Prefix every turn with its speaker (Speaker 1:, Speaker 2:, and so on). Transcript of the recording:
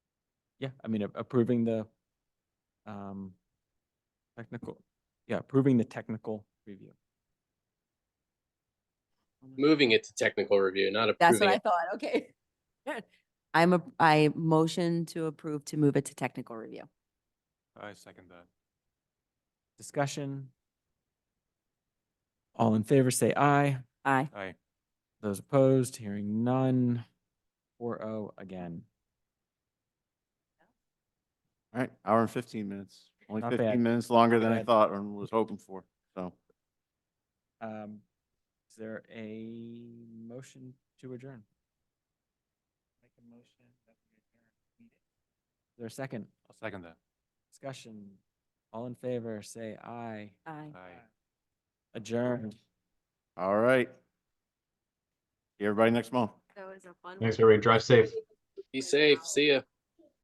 Speaker 1: Yeah, I mean, a- approving the um, technical, yeah, approving the technical review.
Speaker 2: moving it to technical review, not
Speaker 3: That's what
Speaker 2: approving
Speaker 3: I
Speaker 2: it.
Speaker 3: thought, okay. I'm a, I motion to approve to move it to technical review.
Speaker 4: I second that.
Speaker 1: Discussion. All in favor, say aye.
Speaker 3: Aye.
Speaker 4: Aye.
Speaker 1: Those opposed, hearing none. Four oh again.
Speaker 5: All right, hour and fifteen minutes. Only
Speaker 1: Not bad.
Speaker 5: fifteen minutes longer than I
Speaker 1: bad.
Speaker 5: thought and was hoping for, so.
Speaker 1: Um, is there a motion to adjourn? Make a motion that we adjourn. Is there a second?
Speaker 4: I'll second that.
Speaker 1: Discussion. All in favor, say aye.
Speaker 3: Aye.
Speaker 4: Aye.
Speaker 1: Adjourned.
Speaker 5: All right. See everybody next month.
Speaker 3: That was a fun.
Speaker 6: Thanks, everybody. Drive safe.
Speaker 2: Be safe. See ya.